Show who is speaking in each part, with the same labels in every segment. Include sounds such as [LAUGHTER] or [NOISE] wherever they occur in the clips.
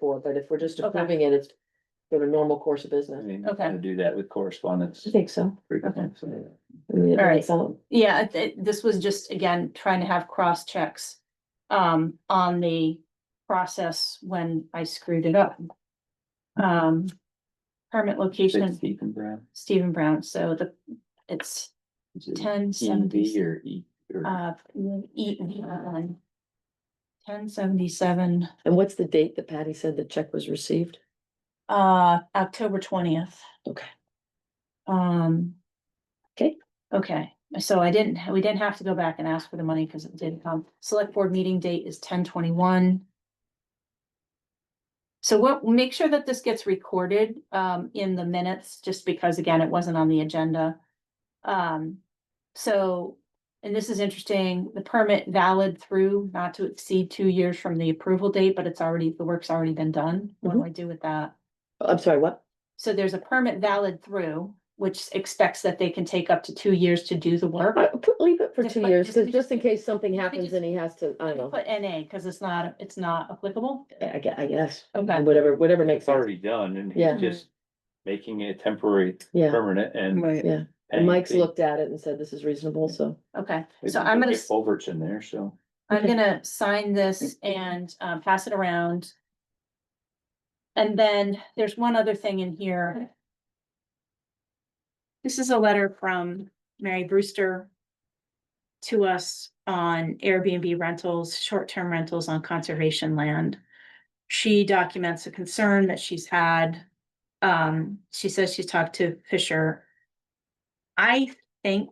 Speaker 1: for, but if we're just
Speaker 2: Okay.
Speaker 1: approving it, it's sort of normal course of
Speaker 3: I
Speaker 1: business.
Speaker 3: mean,
Speaker 2: Okay.
Speaker 3: I Do that with correspondence.
Speaker 1: I think so.
Speaker 3: frequently, so.
Speaker 1: I mean, it
Speaker 2: All right.
Speaker 1: doesn't sound-
Speaker 2: Yeah, it- it- this was just, again, trying to have cross checks um on the process when I screwed it up. Um, permit
Speaker 3: Six
Speaker 2: location,
Speaker 3: Ethan Brown.
Speaker 2: Stephen Brown, so the, it's
Speaker 3: Is it
Speaker 2: ten
Speaker 3: EV
Speaker 2: seventy,
Speaker 3: or E? or-
Speaker 2: uh, E, ten seventy-seven,
Speaker 1: And what's the date that Patty said the check was received?
Speaker 2: uh, October twentieth.
Speaker 1: Okay.
Speaker 2: Um.
Speaker 1: Okay.
Speaker 2: Okay, so I didn't, we didn't have to go back and ask for the money because it didn't come. Select board meeting date is ten twenty-one. So what, make sure that this gets recorded um in the minutes, just because again, it wasn't on the agenda. Um, so, and this is interesting, the permit valid through not to exceed two years from the approval date, but it's already, the work's already been done. What
Speaker 1: Mm-hmm.
Speaker 2: do I do with that?
Speaker 1: I'm sorry, what?
Speaker 2: So there's a permit valid through, which expects that they can take up to two years to do the work.
Speaker 1: Uh, put- Leave it for
Speaker 2: Just
Speaker 1: two
Speaker 2: put-
Speaker 1: years,
Speaker 2: just-
Speaker 1: 'cause just in case something
Speaker 2: just-
Speaker 1: happens and he has to, I don't know,
Speaker 2: Put NA, because it's not, it's not applicable.
Speaker 1: I gue- I guess,
Speaker 2: Okay,
Speaker 1: whatever, whatever makes
Speaker 3: It's
Speaker 1: sense.
Speaker 3: already done and
Speaker 1: Yeah.
Speaker 3: he's just making it temporary,
Speaker 1: Yeah,
Speaker 3: permanent and.
Speaker 4: Right.
Speaker 1: yeah. And
Speaker 3: paying
Speaker 1: Mike's
Speaker 3: fee.
Speaker 1: looked at it and said this is reasonable, so.
Speaker 2: okay,
Speaker 3: Maybe
Speaker 2: so
Speaker 3: we
Speaker 2: I'm
Speaker 3: could
Speaker 2: gonna,
Speaker 3: get
Speaker 2: s-
Speaker 3: Culverts in there, so.
Speaker 2: I'm
Speaker 1: Okay.
Speaker 2: gonna sign this and um pass it around. And then there's one other thing in here. This is a letter from Mary Brewster. To us on Airbnb rentals, short-term rentals on conservation land. She documents a concern that she's had. Um, she says she's talked to Fisher. I think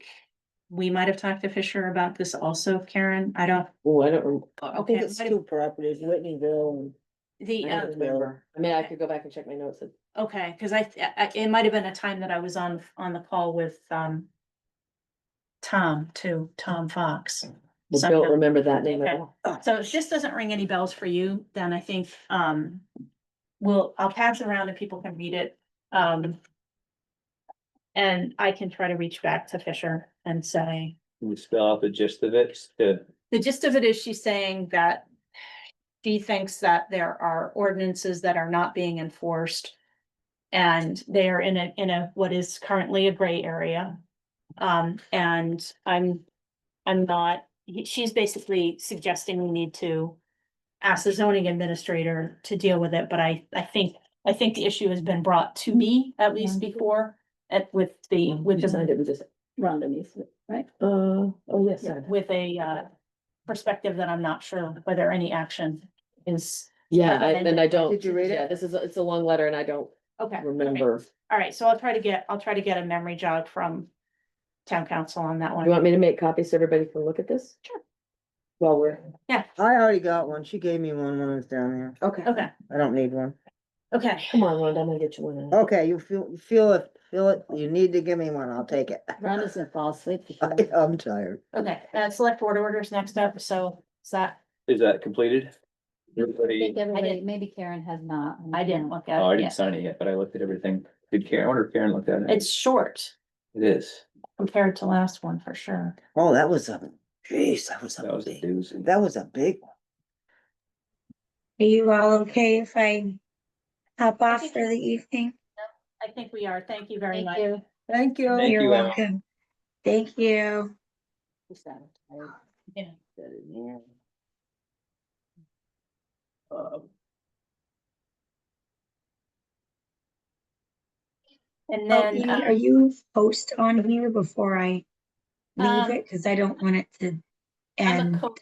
Speaker 2: we might have talked to Fisher about this also, Karen. I don't,
Speaker 1: Oh, I don't, rem-
Speaker 2: Uh,
Speaker 4: I think it's two properties, Whitneyville
Speaker 2: the,
Speaker 1: I
Speaker 2: um,
Speaker 1: don't remember. I mean, I could go back and check my notes. It-
Speaker 2: Okay, cause I, th- I, it might have been a time that I was on, on the call with, um. Tom too, Tom Fox.
Speaker 1: I
Speaker 2: Something.
Speaker 1: Don't remember that name at
Speaker 2: Okay.
Speaker 1: all.
Speaker 2: So if this doesn't ring any bells for you, then I think, um, we'll, I'll pass it around and people can read it, um. And I can try to reach back to Fisher and say,
Speaker 3: Can you spell out the gist of it? Uh, The-
Speaker 2: the gist of it is she's saying that she thinks that there are ordinances that are not being enforced. And they are in a, in a, what is currently a gray area. Um, and I'm, I'm not, he- she's basically suggesting we need to ask the zoning administrator to deal with it, but I, I think, I think the issue has been brought to me at least before. At with the, with
Speaker 1: Just, I
Speaker 2: the
Speaker 1: didn't just,
Speaker 4: Rhonda Neese, right?
Speaker 1: uh, oh, yes. I-
Speaker 2: with a uh perspective that I'm not sure whether any action is.
Speaker 1: Yeah,
Speaker 2: Uh,
Speaker 1: I- and I don't.
Speaker 4: Did you read it?
Speaker 1: Yeah, this is, a- it's a long letter and I don't
Speaker 2: Okay.
Speaker 1: remember.
Speaker 2: All right, so I'll try to get, I'll try to get a memory jog from town council on that
Speaker 1: You
Speaker 2: one.
Speaker 1: want me to make copies so everybody can look at this?
Speaker 2: Sure.
Speaker 1: While we're.
Speaker 4: I already got one. She gave me one when I was down here.
Speaker 1: Okay.
Speaker 2: Okay,
Speaker 4: I don't need one.
Speaker 2: okay,
Speaker 1: Come on, Rhonda, I'm gonna get you one.
Speaker 4: Okay, you feel, feel it, feel it. You need to give me one. I'll take it. [LAUGHS]
Speaker 5: [LAUGHS]
Speaker 1: Rhonda's gonna fall asleep.
Speaker 4: I- I'm tired.
Speaker 2: okay. Uh, select board orders next up, so is that,
Speaker 3: Is that completed? Everybody,
Speaker 5: think everybody,
Speaker 2: didn't-
Speaker 5: maybe Karen has not.
Speaker 2: I didn't look
Speaker 3: oh,
Speaker 2: at
Speaker 3: I
Speaker 2: it
Speaker 3: didn't
Speaker 2: yet.
Speaker 3: sign it yet, but I looked at everything. Did Karen, I wonder if Karen looked at it?
Speaker 2: It's short
Speaker 3: It is.
Speaker 2: compared to last one for sure.
Speaker 4: Oh, that was a, geez, that was
Speaker 3: That
Speaker 4: a
Speaker 3: was a
Speaker 4: big,
Speaker 3: doozy.
Speaker 4: that was a big one.
Speaker 6: Are you all okay if I hop off
Speaker 2: think-
Speaker 6: for the evening?
Speaker 2: I think we are. Thank you very
Speaker 5: Thank
Speaker 2: much.
Speaker 5: you.
Speaker 4: Thank you.
Speaker 3: Thank
Speaker 6: You're
Speaker 3: you, Emma.
Speaker 6: welcome. Thank you.
Speaker 2: Yeah.
Speaker 3: Um,
Speaker 2: And
Speaker 6: Elfie,
Speaker 2: then,
Speaker 6: Oh, Are
Speaker 2: uh,
Speaker 6: you host on here before I leave
Speaker 2: Um,
Speaker 6: it? Because I don't want it to
Speaker 2: I'm a
Speaker 6: end.
Speaker 2: co,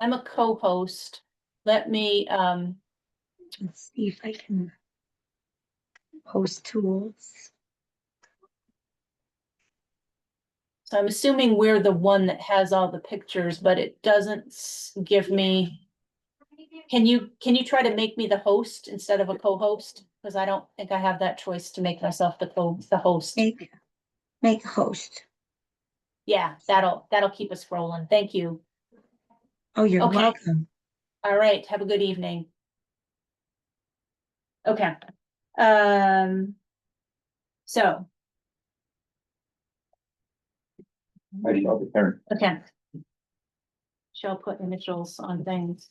Speaker 2: I'm a co-host. Let me, um,
Speaker 6: Let's see if I can post tools.
Speaker 2: So I'm assuming we're the one that has all the pictures, but it doesn't s- give me. Can you, can you try to make me the host instead of a co-host? Because I don't think I have that choice to make myself the co, the host.
Speaker 6: Make, make a host.
Speaker 2: Yeah, that'll, that'll keep us rolling. Thank you.
Speaker 6: Oh, you're
Speaker 2: Okay.
Speaker 6: welcome.
Speaker 2: All right, have a good evening. Okay, um. So,
Speaker 3: I didn't know the Karen.
Speaker 2: okay. Shall put initials on things.